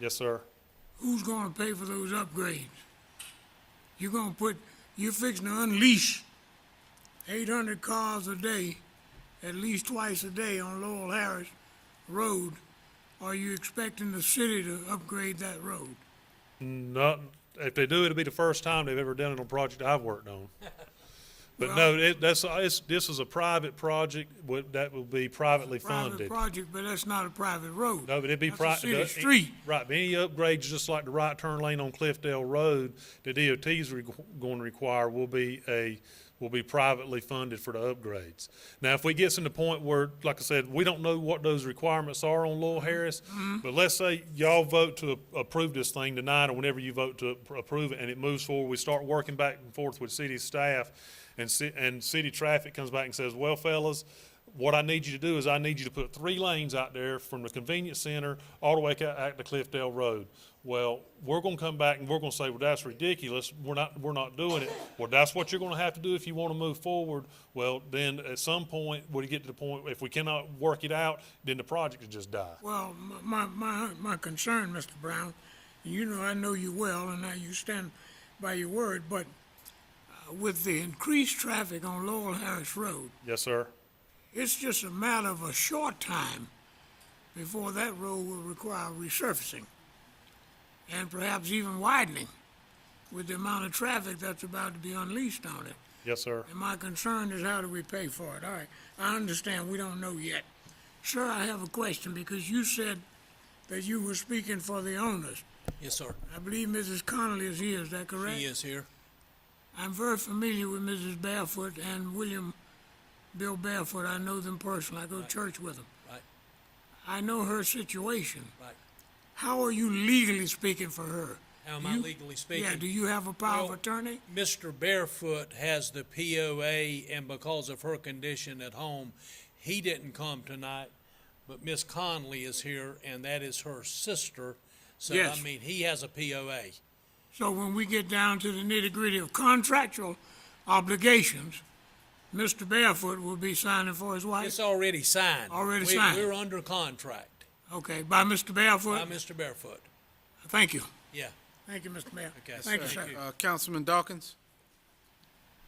Yes, sir. Who's gonna pay for those upgrades? You're gonna put, you're fixing to unleash eight hundred cars a day, at least twice a day on Lowell Harris Road. Are you expecting the city to upgrade that road? Not, if they do, it'll be the first time they've ever done it on a project I've worked on. But no, it, that's, it's, this is a private project, would, that will be privately Private funded. project, but that's not a private road. No, but it'd be That's a private. city street. Right, but any upgrades, just like the right turn lane on Cliffdale Road, the DOT's re- going to require will be a, will be privately funded for the upgrades. Now, if we get to the point where, like I said, we don't know what those requirements are on Lowell Mm-hmm. Harris, but let's say y'all vote to a- approve this thing tonight, or whenever you vote to appro- approve it, and it moves forward, we start working back and forth with city staff, and ci- and city traffic comes back and says, well, fellas, what I need you to do is I need you to put three lanes out there from the convenience center all the way ca- out to Cliffdale Road. Well, we're gonna come back and we're gonna say, well, that's ridiculous. We're not, we're not doing it. Well, that's what you're gonna have to do if you wanna move forward. Well, then at some point, when you get to the point, if we cannot work it out, then the project will just die. Well, m- my, my, my concern, Mr. Brown, and you know, I know you well, and now you stand by your word, but uh, with the increased traffic on Lowell Harris Road, Yes, sir. it's just a matter of a short time before that road will require resurfacing and perhaps even widening with the amount of traffic that's about to be unleashed on it. Yes, sir. And my concern is how do we pay for it? All right, I understand, we don't know yet. Sir, I have a question because you said that you were speaking for the owners. Yes, sir. I believe Mrs. Connolly is here, is that correct? He is here. I'm very familiar with Mrs. Barefoot and William Bill Barefoot. I know them personally. I go to church with them. Right, I know her situation. right. How are you legally speaking for her? How am Do I you- legally speaking? Yeah, do you have a power of Well- attorney? Mr. Barefoot has the POA, and because of her condition at home, he didn't come tonight. But Miss Conley is here, and that is her sister. So, I Yes. mean, he has a POA. So when we get down to the nitty gritty of contractual obligations, Mr. Barefoot will be signing for his wife? It's already signed. Already We- signed. We're under contract Okay, by Mr. by Barefoot? Mr. Barefoot. Thank you. Yeah. Thank you, Mr. Mayor. Okay, Thank you, thank sir. you. Uh, Councilman Dawkins?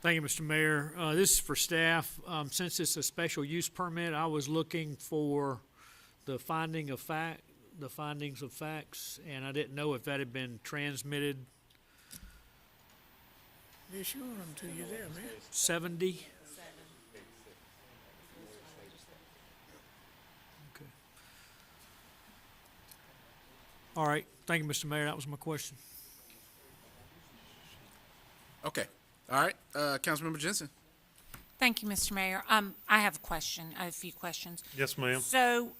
Thank you, Mr. Mayor. Uh, This is for staff. Um, Since it's a special use permit, I was looking for the finding of fact, the findings of facts, and I didn't know if that had been transmitted They showed them to you there, man. seventy. Okay. All right, thank you, Mr. Mayor. That was my question. Okay, all right, uh, Councilmember Jensen? Thank you, Mr. Mayor. Um, I have a question, a few questions. Yes, ma'am. So,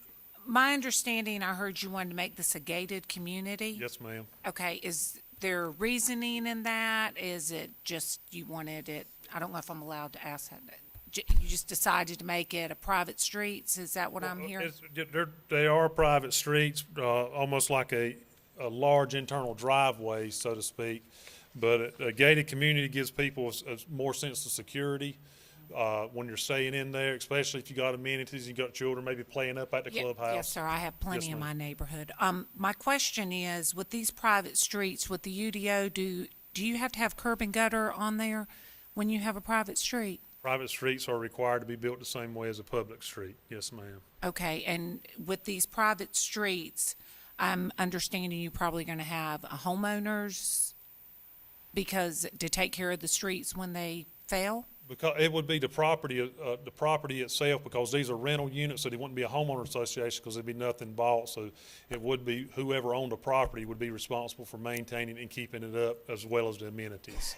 my understanding, I heard you wanted to make this a gated community? Yes, ma'am. Okay, is there reasoning in that? Is it just you wanted it, I don't know if I'm allowed to ask that. J- You just decided to make it a private streets? Is that what I'm hearing? uh, It's- They're, they are private streets, uh, almost like a, a large internal driveway, so to speak. But a a gated community gives people a s- a s- more sense of security, uh, when you're staying in there, especially if you got amenities, you got children maybe playing up at the Ye- clubhouse. Yes, sir, I have plenty in ma'am. my neighborhood. Um, my question is, with these private streets, with the UDO, do, do you have to have curb and gutter on there when you have a private street? Private streets are required to be built the same way as a public street. Yes, ma'am. Okay, and with these private streets, I'm understanding you're probably gonna have homeowners because to take care of the streets when they fail? Because it would be the property, uh, the property itself, because these are rental units, so there wouldn't be a homeowner association, because there'd be nothing bought, so it would be whoever owned the property would be responsible for maintaining and keeping it up, as well as the amenities.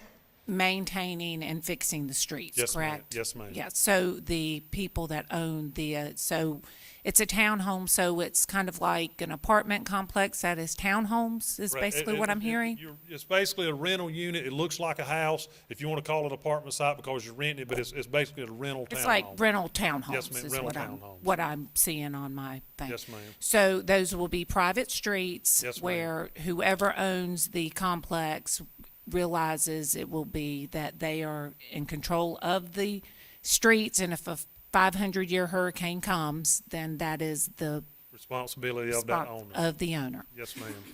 Maintaining and fixing the streets, Yes, ma'am. correct? Yes, ma'am. Yeah, so the people that own the, uh, so it's a townhome, so it's kind of like an apartment complex that is townhomes, is Right, it- basically what it's- I'm it- hearing? you're- It's basically a rental unit, it looks like a house, if you want to call it apartment site, because you're renting it, but it's, it's basically a rental townhome. It's like rental townhomes ma'am, is rental what I'm, townhomes. what I'm seeing on my thing. Yes, ma'am. So those will be private streets Yes, ma'am. where whoever owns the complex realizes it will be that they are in control of the streets and if a five hundred year hurricane comes, then that is the Responsibility of that spot owner. of the owner. Yes, ma'am.